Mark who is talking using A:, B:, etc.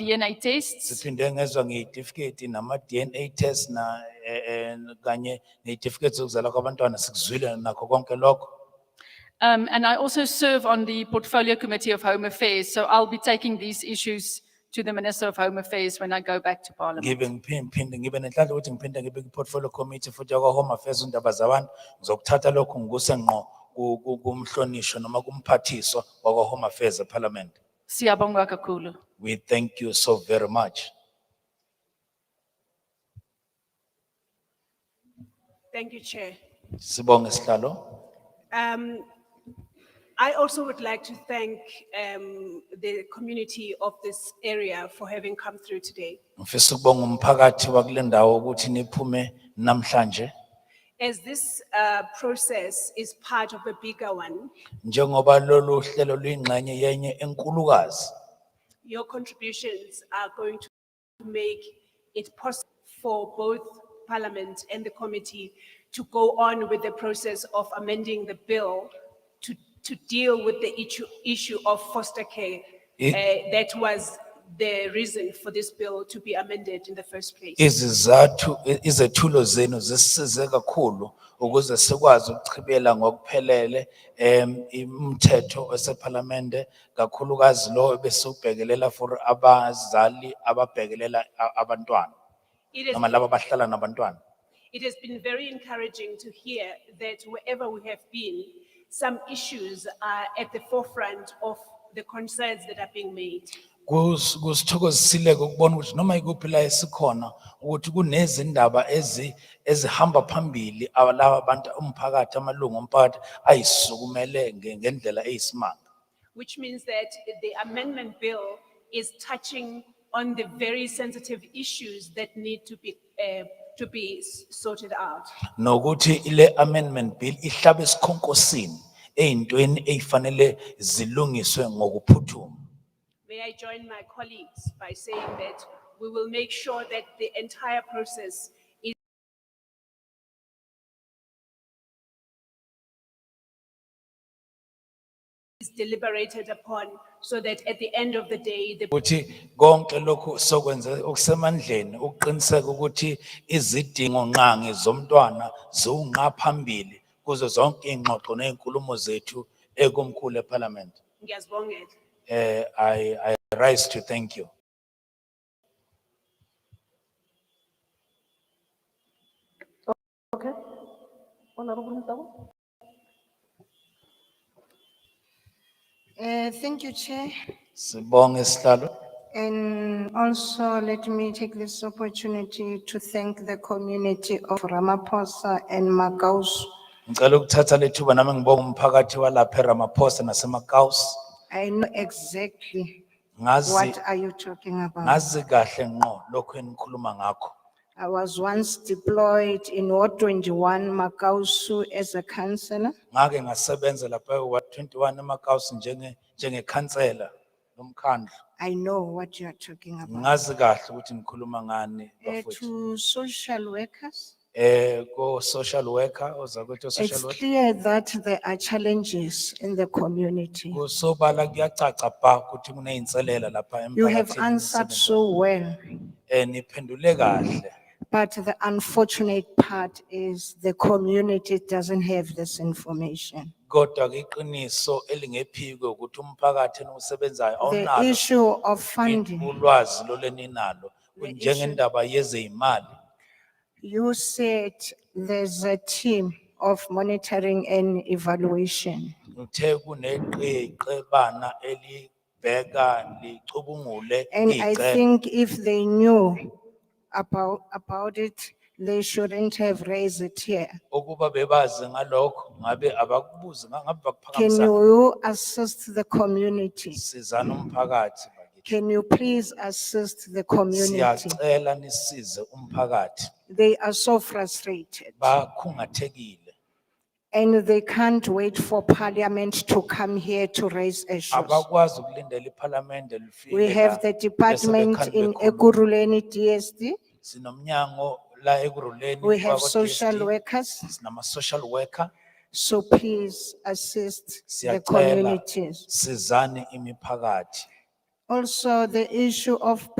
A: DNA tests.
B: siphinde ngezwa ngeyitifiketi nama-dna test na eh, eh, kanye neyitifiketi zokuzalwa kwabantwana sikuzwile nakho konke lokho
A: Um, and I also serve on the Portfolio Committee of Home Affairs, so I'll be taking these issues to the Minister of Home Affairs when I go back to Parliament.
B: ngibe ngiphinde ngibe nenhlanhla ukuthi ngiphinde ngibe kwi-portfolio committee futhi yakwa-home affairs undaba zabantu ngizokuthatha lokhu ngikuse ngqo ku- ku- kumhlonishwa noma kumphathiswa wakwa-home affairs eparliament
A: Siyabonga kakhulu.
B: we thank you so very much
C: Thank you, Chair.
B: sibonge sihlalo
C: Um, I also would like to thank um, the community of this area for having come through today.
B: ngifisa ukubonga umphakathi wakule ndawo ukuthi niphume namhlanje
C: As this uh, process is part of a bigger one,
B: njengoba lolu hlelo luyingxenye yenye enkulukazi
C: your contributions are going to make it possible for both Parliament and the committee to go on with the process of amending the bill to, to deal with the issue, issue of foster care.
B: I-
C: uh, That was the reason for this bill to be amended in the first place.
B: izizathu i- izethulo zenu zisisize kakhulu ukuze sikwazi ukuchibela ngokuphelele em umthetho osephalamende kakhulukazi lo ebesubhekelela for abazali ababhekelela a- abantwana
C: It has
B: noma laba abahlala nabantwana
C: It has been very encouraging to hear that wherever we have been, some issues are at the forefront of the concerns that are being made.
B: Kus- kusithokozisile-ke ukubona ukuthi noma ikuphi la esikhona ukuthi kunezindaba ezi ezihamba phambili a- laba abantu umphakathi amalungu omphakathi ayisukumele nge- ngendlela eyisimanga
C: which means that the amendment bill is touching on the very sensitive issues that need to be, uh, to be s- sorted out.
B: nokuthi ile amendment bill ihlabe isikhonkosini eyintweni eyifanele zilungiswe ngokuphuthuma
C: May I join my colleagues by saying that we will make sure that the entire process is is deliberated upon so that at the end of the day, the
B: ukuthi konke lokhu sokwenza okusemandleni ukuqiniseka ukuthi izidingo nqangi zomntwana ziwunqa phambili kuzo zonke iy'ngxoxo ney'nkulumo zethu ekumkhulu eParliament.
C: Ngiyazibongela.
B: Eh, I, I rise to thank you.
D: Okay. Honorable Ntamu?
E: Uh, Thank you, Chair.
B: Sibonge sihlalo.
E: And also, let me take this opportunity to thank the community of Ramaphosa and Magaus.
B: Ngicela ukuthatha lethuba nami ngibonge umphakathi walapha eRamaphosa naseMakaus.
E: I know exactly
B: Ngazi,
E: what are you talking about.
B: ngazi kahle ngqo lokhu enikhuluma ngakho.
E: I was once deployed in Ward twenty-one, Magausu, as a counselor.
B: Ngake ngasebenza lapha ewa 21 eMakaus njenge, njengekhansela lomkhandlu.
E: I know what you are talking about.
B: Ngazi kahle ukuthi nikhuluma ngani
E: Uh,
B: bafowethu.
E: To social workers,
B: Eh ko social worker ozakuthi
E: it's
B: social worker.
E: clear that there are challenges in the community.
B: Kusobala kuyacaca ba ukuthi kuneyinselela lapha emphakathini.
E: You have answered so well.
B: Eh niphendule kahle.
E: But the unfortunate part is the community doesn't have this information.
B: Kodwa ke iqiniso elingephiko ukuthi umphakathi enisebenzayo
E: The
B: awunalo
E: issue of funding,
B: ulwazi loleninalo njengendaba yezeyimali.
E: you said there's a team of monitoring and evaluation.
B: Uthe kuneqeqebana elibheka licubungule
E: And I
B: icebo.
E: think if they knew about, about it, they shouldn't have raised it here.
B: Ukuba bebazi ngalokho ngabe abakubuzi ngabe
E: Can
B: bakuphakamisana.
E: you assist the community?
B: Sizana umphakathi bakithi.
E: Can you please assist the community?
B: Siyacela nisize umphakathi.
E: They are so frustrated.
B: Bakhungathekile.
E: And they can't wait for parliament to come here to raise issues.
B: Abakwazi ukulindela iPhalamende lifike.
E: We have
B: la,
E: the
B: bese
E: department
B: bekhanda
E: in
B: bekhuluma.
E: Ekuruleni DSD.
B: Sinomnyango la ekuruleni.
E: We have
B: wakwa-DSD.
E: social workers.
B: Sinama social worker.
E: So please assist the
B: Siyacela.
E: communities.
B: Sizane imiphakathi.
E: Also, the issue of